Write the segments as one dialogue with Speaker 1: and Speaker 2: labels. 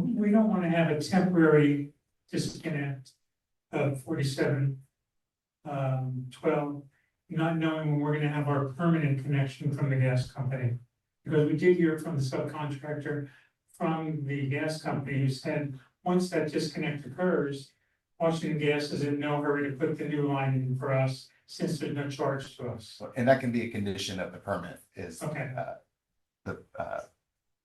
Speaker 1: don't wanna have a temporary disconnect of forty-seven. Um, twelve, not knowing when we're gonna have our permanent connection from the gas company. Because we did hear from the subcontractor, from the gas company, who said, once that disconnect occurs. Washington Gas is in no hurry to put the new line in for us, since there's no charge to us,
Speaker 2: And that can be a condition of the permit is
Speaker 1: okay.
Speaker 2: the uh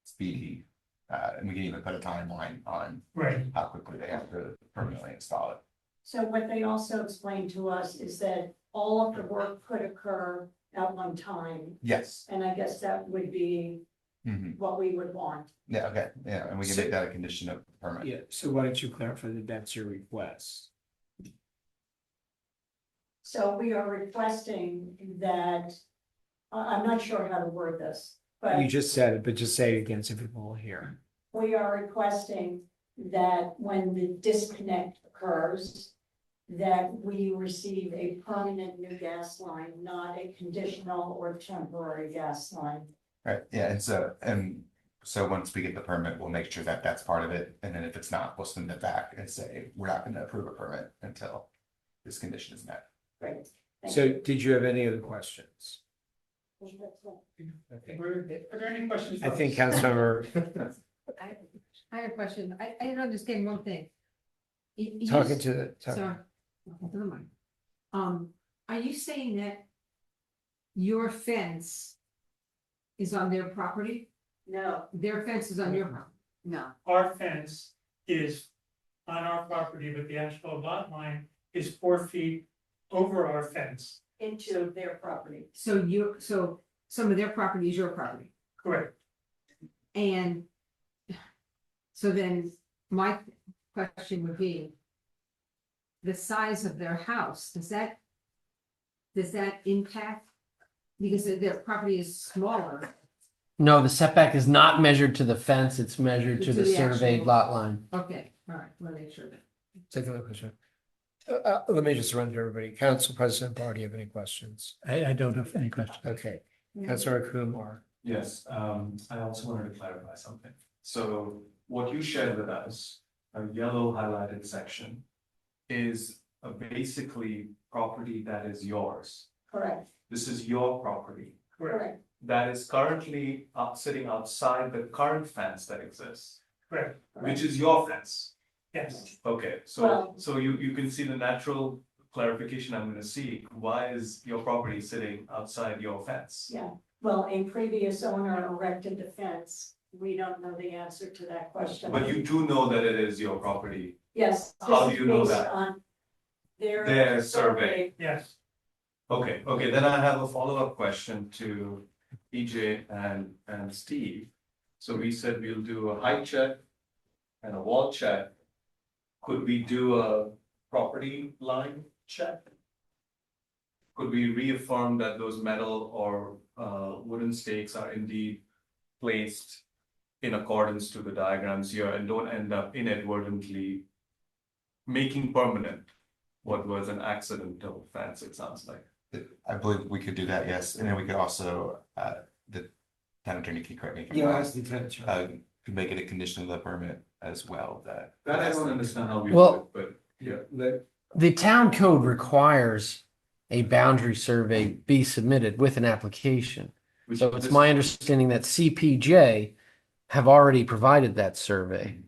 Speaker 2: speedy. Uh, and we can even put a timeline on
Speaker 1: Right,
Speaker 2: how quickly they have to permanently install it.
Speaker 3: So what they also explained to us is that all of the work could occur at one time,
Speaker 2: Yes,
Speaker 3: and I guess that would be
Speaker 2: Mhm.
Speaker 3: what we would want.
Speaker 2: yeah, okay, yeah, and we can make that a condition of the permit.
Speaker 4: Yeah, so why don't you clarify that that's your request?
Speaker 3: So we are requesting that, I, am not sure how to word this, but
Speaker 4: You just said it, but just say it again so people will hear.
Speaker 3: we are requesting that when the disconnect occurs, that we receive a permanent new gas line, not a conditional or temporary gas line.
Speaker 2: Right, yeah, and so, and so once we get the permit, we'll make sure that that's part of it, and then if it's not, we'll send it back and say, we're not gonna approve a permit until this condition is met.
Speaker 3: Great. thank
Speaker 4: So
Speaker 3: you.
Speaker 4: did you have any other questions? Okay.
Speaker 1: were, are there any questions? for
Speaker 4: I think
Speaker 1: us?
Speaker 4: Councilmember
Speaker 5: I, I have a question. I, I didn't understand one thing. You- you
Speaker 4: talking
Speaker 5: just-
Speaker 4: to the,
Speaker 5: Sorry.
Speaker 4: talking-
Speaker 5: Okay, never mind. Um, are you saying that your fence is on their property?
Speaker 3: No,
Speaker 5: Their fence is on your property? No.
Speaker 1: our fence is on our property, but the asphalt lot line is four feet over our fence.
Speaker 3: into their property.
Speaker 5: So you, so some of their property is your property
Speaker 1: Correct.
Speaker 5: and so then my question would be the size of their house, does that does that impact? Because their- their property is smaller.
Speaker 6: No, the setback is not measured to the fence, it's measured to
Speaker 5: To
Speaker 6: the
Speaker 5: the
Speaker 6: surveyed
Speaker 5: actual-
Speaker 6: lot line.
Speaker 5: Okay, all right, want to make sure that.
Speaker 4: take another question. Uh, uh, let me just run through everybody. Council President Barr, do you have any questions?
Speaker 7: I, I don't have any questions.
Speaker 4: Okay, Councilor Kumar.
Speaker 8: Yes, um, I also wanted to clarify something. So what you shared with us, a yellow highlighted section is a basically property that is yours.
Speaker 3: Correct,
Speaker 8: This is your property
Speaker 3: correct,
Speaker 8: that is currently up, sitting outside the current fence that exists,
Speaker 1: Correct,
Speaker 8: which is your fence.
Speaker 1: yes.
Speaker 8: Okay, so,
Speaker 3: Well-
Speaker 8: so you, you can see the natural clarification I'm gonna see. Why is your property sitting outside your fence?
Speaker 3: yeah. Well, a previous owner erected the fence. We don't know the answer to that question.
Speaker 8: But you do know that it is your property
Speaker 3: Yes. this
Speaker 8: How do
Speaker 3: is
Speaker 8: you know
Speaker 3: based
Speaker 8: that?
Speaker 3: on Their.
Speaker 8: Their survey.
Speaker 1: Yes,
Speaker 8: Okay, okay, then I have a follow-up question to EJ and, and Steve. So we said we'll do a height check and a wall check. Could we do a property line check? Could we reaffirm that those metal or, uh, wooden stakes are indeed placed in accordance to the diagrams here and don't end up inadvertently making permanent what was an accidental fence, it sounds like?
Speaker 2: I believe we could do that, yes, and then we could also, uh, the town attorney can correct me. if I'm
Speaker 4: You
Speaker 2: wrong,
Speaker 4: asked the attorney.
Speaker 2: Uh, could make it a condition of the permit as well, that.
Speaker 8: That I don't understand how we do it,
Speaker 6: Well-
Speaker 8: but yeah.
Speaker 6: The town code requires a boundary survey be submitted with an application.
Speaker 8: which
Speaker 6: So it's
Speaker 8: this-
Speaker 6: my understanding that CPJ have already provided that survey. And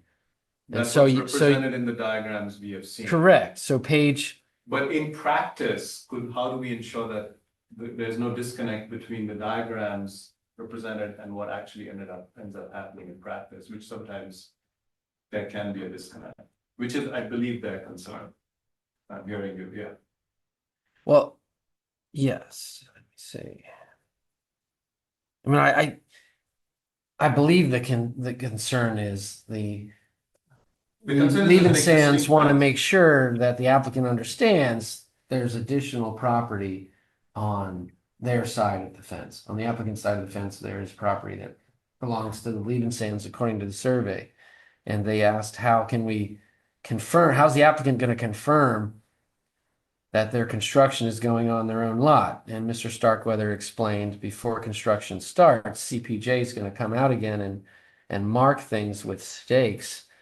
Speaker 8: That's
Speaker 6: so
Speaker 8: what's
Speaker 6: you, so,
Speaker 8: represented in the diagrams we have seen.
Speaker 6: correct, so page,
Speaker 8: But in practice, could, how do we ensure that th- there's no disconnect between the diagrams represented and what actually ended up, ends up happening in practice, which sometimes there can be a disconnect, which is, I believe, their concern. I'm hearing you, yeah.
Speaker 6: well, yes, let me see. I mean, I, I, I believe the con, the concern is the
Speaker 8: The concern is
Speaker 6: Mm, Leland
Speaker 8: that an existing
Speaker 6: Sands want to
Speaker 8: fence-
Speaker 6: make sure that the applicant understands there's additional property on their side of the fence. On the applicant's side of the fence, there is property that belongs to the Leland Sands according to the survey. And they asked, how can we confirm, how's the applicant going to confirm that their construction is going on their own lot? And Mr. Starkweather explained, before construction starts, CPJ is going to come out again and, and mark things with stakes